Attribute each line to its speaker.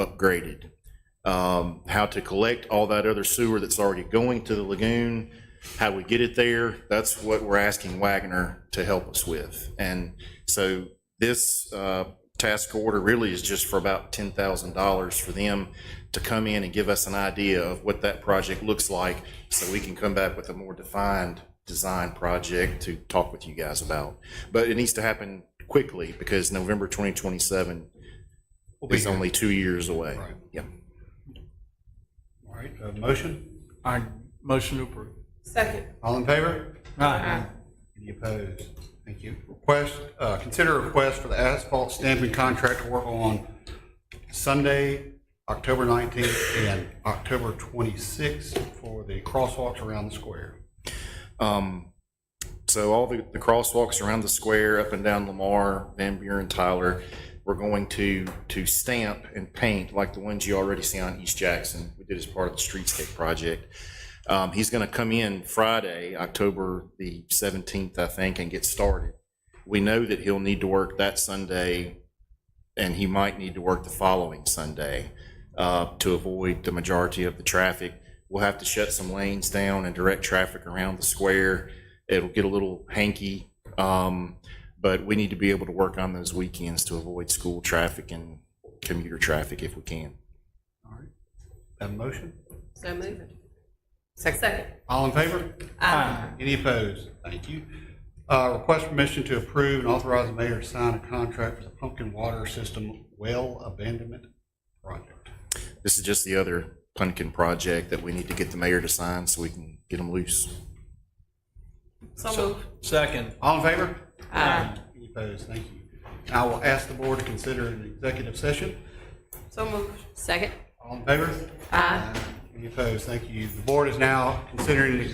Speaker 1: upgraded. Um, How to collect all that other sewer that's already going to the lagoon, how we get it there, that's what we're asking Wagner to help us with. And so this uh, task order really is just for about $10,000 for them to come in and give us an idea of what that project looks like so we can come back with a more defined design project to talk with you guys about. But it needs to happen quickly because November 2027 is only two years away. Yeah.
Speaker 2: All right, a motion?
Speaker 3: I motion to approve.
Speaker 4: Second.
Speaker 2: All in favor?
Speaker 3: Aye.
Speaker 2: Any opposed? Thank you. Request, uh, consider a request for the asphalt stamping contract to work on Sunday, October 19th and October 26th for the crosswalks around the square.
Speaker 1: Um, so all the, the crosswalks around the square, up and down Lamar, Van Buren, Tyler, we're going to, to stamp and paint like the ones you already see on East Jackson. We did as part of the streetscape project. Um, he's gonna come in Friday, October the seventeenth, I think, and get started. We know that he'll need to work that Sunday and he might need to work the following Sunday uh, to avoid the majority of the traffic. We'll have to shut some lanes down and direct traffic around the square. It'll get a little hanky, um, but we need to be able to work on those weekends to avoid school traffic and commuter traffic if we can.
Speaker 2: Have a motion?
Speaker 4: So moved. Second.
Speaker 2: All in favor?
Speaker 4: Aye.
Speaker 2: Any opposed? Thank you. Uh, Request permission to approve and authorize the mayor to sign a contract for the pumpkin water system well abandonment project.
Speaker 1: This is just the other pumpkin project that we need to get the mayor to sign so we can get them loose.
Speaker 4: So moved.
Speaker 3: Second.
Speaker 2: All in favor?
Speaker 4: Aye.
Speaker 2: Any opposed? Thank you. And I will ask the board to consider an executive session.
Speaker 4: So moved. Second.
Speaker 2: All in favor?
Speaker 4: Aye.
Speaker 2: Any opposed? Thank you. The board is now considering an